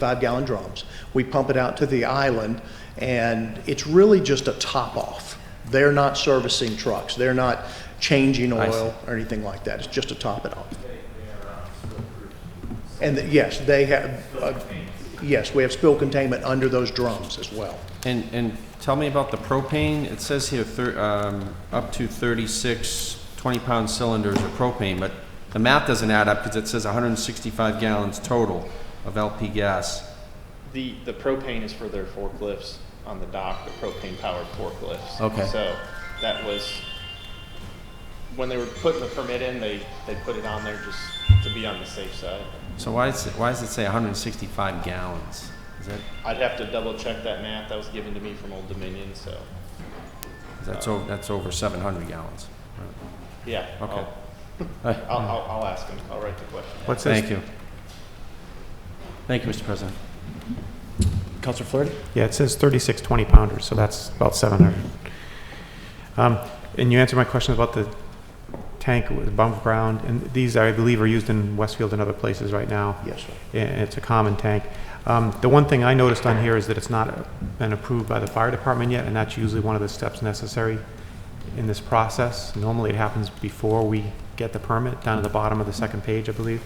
five gallon drums. We pump it out to the island, and it's really just a top off. They're not servicing trucks, they're not changing I see. oil or anything like that, it's just to top it off. And th- yes, they have, uh, yes, we have spill containment under those drums as well. And, and tell me about the propane. It says here, thir- um, up to 36 20-pound cylinders of propane, but the math doesn't add up because it says 165 gallons total of LP gas. The, the propane is for their forklifts on the dock, the propane powered forklifts. Okay. So that was, when they were putting the permit in, they, they put it on there just to be on the safe side. So why is, it- why does it say 165 gallons? Is that, I'd have to double check that math. That was given to me from Old Dominion, so that's over, that's over 700 gallons. yeah. Okay. I'll, I'll, I'll, I'll ask him. I'll write the question. down. What's Thank this? you. Thank you, Mr. President. Counselor Flaherty? Yeah, it says 36 20 pounders, so that's about 700. Um, And you answered my question about the tank with above ground, and these, I believe, are used in Westfield and other places right now. Yes, sir. and it's a common tank. Um, The one thing I noticed on here is that it's not been approved by the fire department yet, and that's usually one of the steps necessary in this process. Normally, it happens before we get the permit, down at the bottom of the second page, I believe.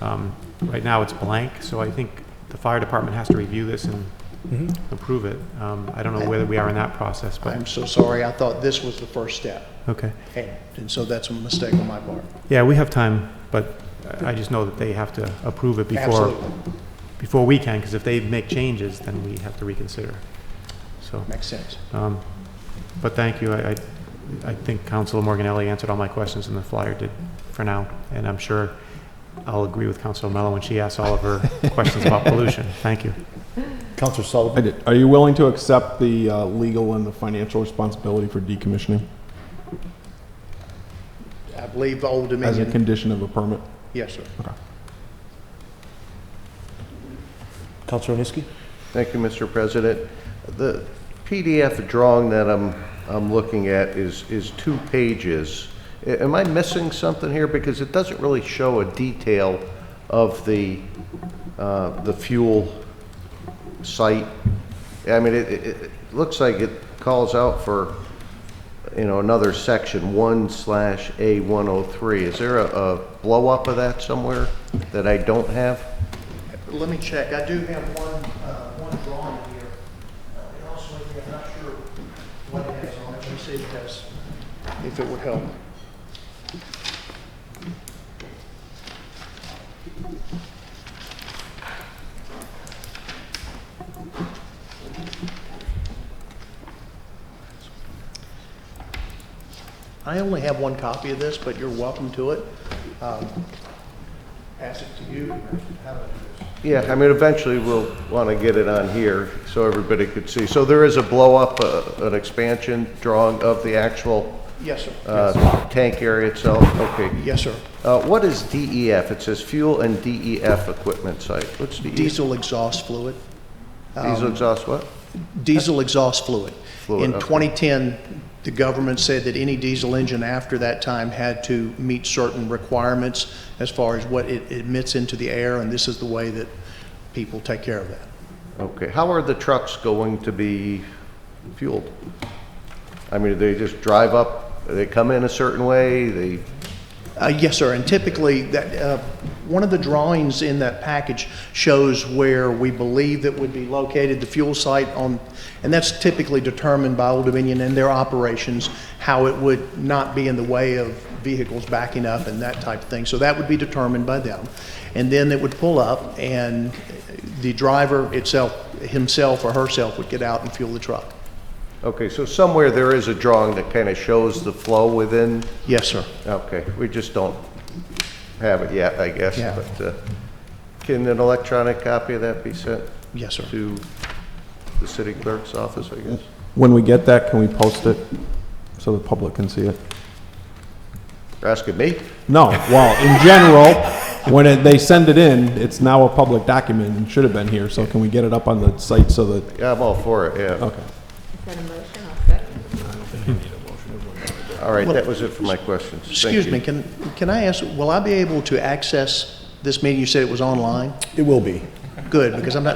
Um, Right now, it's blank, so I think the fire department has to review this and approve it. Um, I don't know whether we are in that process, but, I'm so sorry, I thought this was the first step, okay. and, and so that's a mistake on my part. Yeah, we have time, but I I just know that they have to approve it before, Absolutely, before we can, because if they make changes, then we have to reconsider, so. makes sense. Um, But thank you. I, I- I think Councilor Morganelli answered all my questions and the flyer did for now. And I'm sure I'll agree with Councilor Mello when she asks all of her questions about pollution. Thank you. Counselor I Sullivan? did. Are you willing to accept the uh, legal and the financial responsibility for decommissioning I believe the Old as a Dominion, condition of a permit? yes, sir. Counselor Oniski? Thank you, Mr. President. The PDF drawing that I'm, I'm looking at is, is two pages. A- Am I missing something here? Because it doesn't really show a detail of the, uh, the fuel site. I mean, it, it, it looks like it calls out for, you know, another section, one slash A one oh three. Is there a, a blow-up of that somewhere that I don't have? Let me check, I do have one, uh, one drawing here. Uh, and Also, I'm not sure what it has on it, let me see if it has, if it would help. I only have one copy of this, but you're welcome to it. Um, Pass it to you. How about this? Yeah, I mean, eventually we'll want to get it on here so everybody could see. So there is a blow-up, uh, an expansion drawing of the actual Yes, uh, sir. tank area itself? Okay. Yes, sir. Uh, What is DEF? It says fuel and DEF equipment site. What's DEF? Diesel um, exhaust fluid. Diesel exhaust what? Diesel exhaust fluid. Fluid, In okay. 2010, the government said that any diesel engine after that time had to meet certain requirements as far as what it emits into the air, and this is the way that people take care of that. Okay. How are the trucks going to be fueled? I mean, do they just drive up, they come in a certain way, they, Uh, Yes, sir, and typically, that, uh, one of the drawings in that package shows where we believe that would be located the fuel site on, and that's typically determined by Old Dominion and their operations, how it would not be in the way of vehicles backing up and that type of thing. So that would be determined by them. And then it would pull up, and the driver itself, himself or herself would get out and fuel the truck. okay, so somewhere there is a drawing that kind of shows the flow within Yes, sir. Okay, we just don't have it yet, I guess, Yeah. but uh, can an electronic copy of that be sent Yes, sir. to the city clerk's office, I guess? When we get that, can we post it so the public can see it? You're asking me? No, well, in general, when it- they send it in, it's now a public document and should have been here, so can we get it up on the site so that, Yeah, I'm all for it, yeah. okay. Is that a motion? I'll second. All right, that was it for my questions. Thank Excuse you. me, can, can I ask, will I be able to access this meeting? You said it was online? It will be. Good, because I'm not